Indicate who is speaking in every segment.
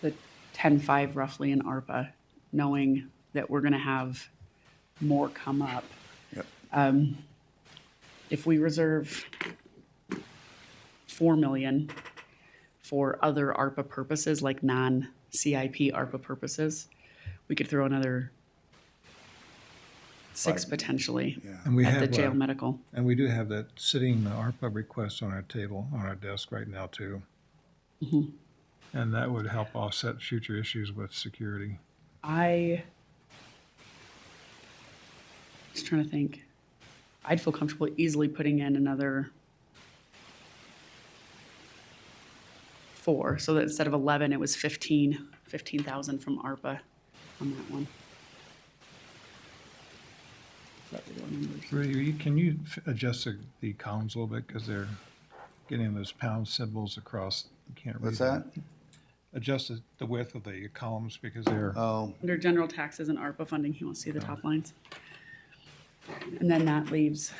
Speaker 1: the ten-five roughly in ARPA, knowing that we're gonna have more come up.
Speaker 2: Yep.
Speaker 1: Um, If we reserve four million for other ARPA purposes, like non-CIP ARPA purposes, we could throw another six
Speaker 2: Five.
Speaker 1: potentially
Speaker 2: Yeah,
Speaker 3: And we
Speaker 1: at the
Speaker 3: have,
Speaker 1: jail
Speaker 3: uh,
Speaker 1: medical.
Speaker 3: and we do have that sitting ARPA request on our table, on our desk right now too.
Speaker 1: Mm-hmm.
Speaker 3: And that would help offset future issues with security.
Speaker 1: I just trying to think. I'd feel comfortable easily putting in another four, so that instead of eleven, it was fifteen, fifteen thousand from ARPA on that one. Is that the real numbers?
Speaker 3: Rudy, can you f- adjust the, the columns a little bit, because they're getting those pound symbols across, you can't read
Speaker 2: what's that?
Speaker 3: them. Adjust the- the width of the columns, because they're,
Speaker 2: Oh,
Speaker 1: Under general taxes and ARPA funding, he wants to see the top lines. And then that leaves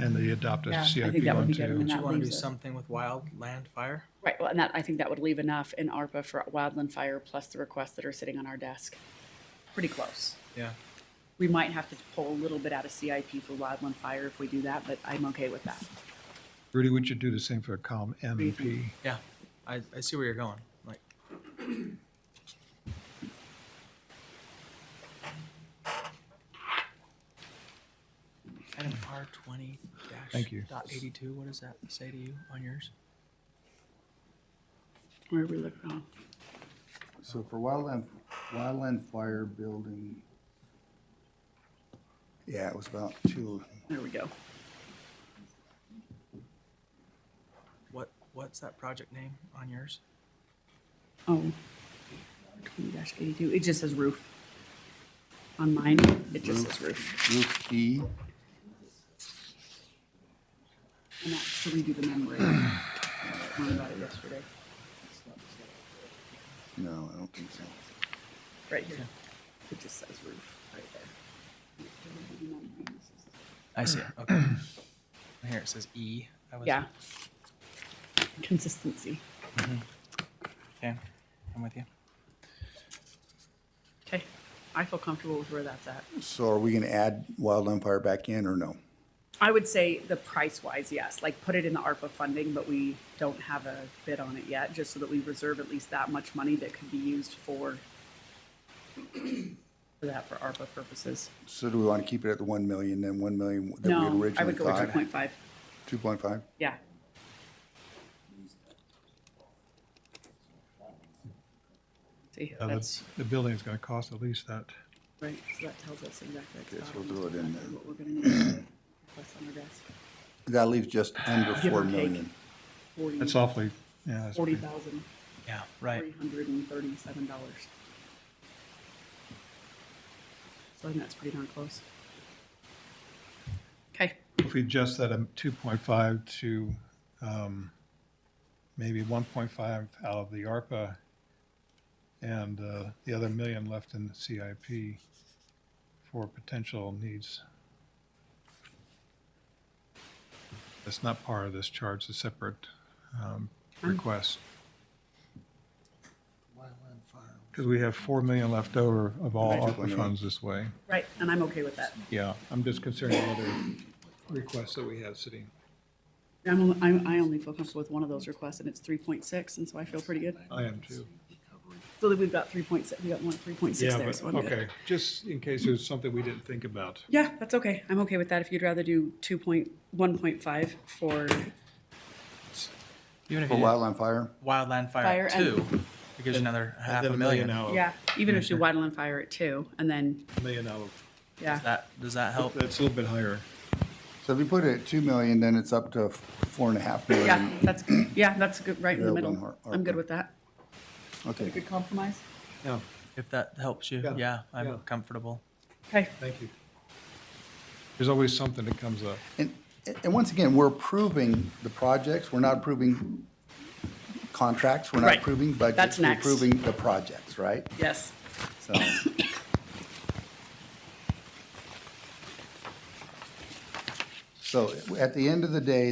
Speaker 3: and they adopted
Speaker 1: Yeah, I think
Speaker 3: CIP
Speaker 1: that would
Speaker 3: one
Speaker 1: be good.
Speaker 3: too.
Speaker 1: And
Speaker 4: Do
Speaker 1: that
Speaker 4: you want to
Speaker 1: leaves
Speaker 4: do
Speaker 1: it.
Speaker 4: something with wildland fire?
Speaker 1: Right, well, and that, I think that would leave enough in ARPA for wildland fire plus the requests that are sitting on our desk. Pretty close.
Speaker 4: Yeah.
Speaker 1: We might have to pull a little bit out of CIP for wildland fire if we do that, but I'm okay with that.
Speaker 3: Rudy, would you do the same for column M and P?
Speaker 4: Yeah, I, I see where you're going, like, item R twenty dash
Speaker 3: Thank you.
Speaker 4: dot eighty-two, what does that say to you on yours?
Speaker 1: Where we look, oh,
Speaker 2: so for wildland, wildland fire building. Yeah, it was about two,
Speaker 1: there we go.
Speaker 4: What, what's that project name on yours?
Speaker 1: Oh. Twenty eighty-two, it just says roof. On mine, it just says roof.
Speaker 2: roof E,
Speaker 1: And that's to redo the membrane. Learned about it yesterday,
Speaker 2: no, I don't think so.
Speaker 1: right here. It just says roof, right there.
Speaker 4: I see, it, okay. Here it says E. That was-
Speaker 1: Yeah. Consistency.
Speaker 4: Okay, I'm with you.
Speaker 1: Okay, I feel comfortable with where that's at.
Speaker 2: So are we gonna add wildland fire back in or no?
Speaker 1: I would say the price wise, yes, like put it in the ARPA funding, but we don't have a bid on it yet, just so that we reserve at least that much money that could be used for for that for ARPA purposes.
Speaker 2: So do we wanna keep it at the one million, then one million that we had
Speaker 1: No, I
Speaker 2: originally
Speaker 1: would go with two
Speaker 2: thought?
Speaker 1: point five,
Speaker 2: Two point five?
Speaker 1: yeah. See,
Speaker 3: Uh,
Speaker 1: that's,
Speaker 3: The the building's gonna cost at least that.
Speaker 1: right, so that tells us exactly.
Speaker 2: Okay, so we'll do it in there.
Speaker 1: What we're gonna need to request on our desk.
Speaker 2: That leaves just under
Speaker 1: Uh, Give or
Speaker 2: four
Speaker 1: take.
Speaker 2: million.
Speaker 1: Forty.
Speaker 3: That's awfully, yeah. that's
Speaker 1: forty
Speaker 3: pretty-
Speaker 1: thousand
Speaker 4: Yeah, right.
Speaker 1: three hundred and thirty-seven dollars. So I think that's pretty darn close. Okay,
Speaker 3: If we adjust that um, 2.5 to um, maybe 1.5 out of the ARPA and uh, the other million left in the CIP for potential needs. That's not part of this charge, it's a separate um, request. Because we have 4 million left over of all
Speaker 2: Right.
Speaker 3: ARPA funds this way.
Speaker 1: right, and I'm okay with that.
Speaker 3: Yeah, I'm just concerned with other requests that we have sitting.
Speaker 1: I'm, only- I'm, I only feel comfortable with one of those requests, and it's three point six, and so I feel pretty good.
Speaker 3: I am too.
Speaker 1: So that we've got three point six, we got one, three point six
Speaker 3: Yeah,
Speaker 1: there,
Speaker 3: but,
Speaker 1: so I'm good.
Speaker 3: okay, just in case there's something we didn't think about.
Speaker 1: Yeah, that's okay. I'm okay with that. If you'd rather do two point, one point five for
Speaker 4: Even if
Speaker 2: For
Speaker 4: you did
Speaker 2: wildland fire,
Speaker 4: wildland
Speaker 1: Fire
Speaker 4: fire
Speaker 1: and-
Speaker 4: two, it gives you another half
Speaker 3: Then
Speaker 4: a million.
Speaker 3: out of-
Speaker 1: Yeah, even if you waddle and fire at two, and then,
Speaker 3: a Million out of,
Speaker 1: yeah,
Speaker 4: Does that, does that help?
Speaker 3: that's a little bit higher.
Speaker 2: so if you put it at two million, then it's up to f- four and a half
Speaker 1: yeah,
Speaker 2: million.
Speaker 1: that's, yeah, that's good, right in the
Speaker 2: Railgun
Speaker 1: middle.
Speaker 2: har-
Speaker 1: I'm good
Speaker 2: ARPA.
Speaker 1: with that.
Speaker 2: Okay.
Speaker 1: Good compromise.
Speaker 3: Yeah,
Speaker 4: If that helps you,
Speaker 3: Yeah,
Speaker 4: yeah, I'm
Speaker 3: yeah.
Speaker 4: comfortable.
Speaker 1: Okay,
Speaker 3: thank you. There's always something that comes up.
Speaker 2: And, and once again, we're approving the projects, we're not approving contracts, we're not
Speaker 1: Right.
Speaker 2: approving budgets.
Speaker 1: That's next.
Speaker 2: We're approving the projects, right?
Speaker 1: yes.
Speaker 2: So, so at the end of the day,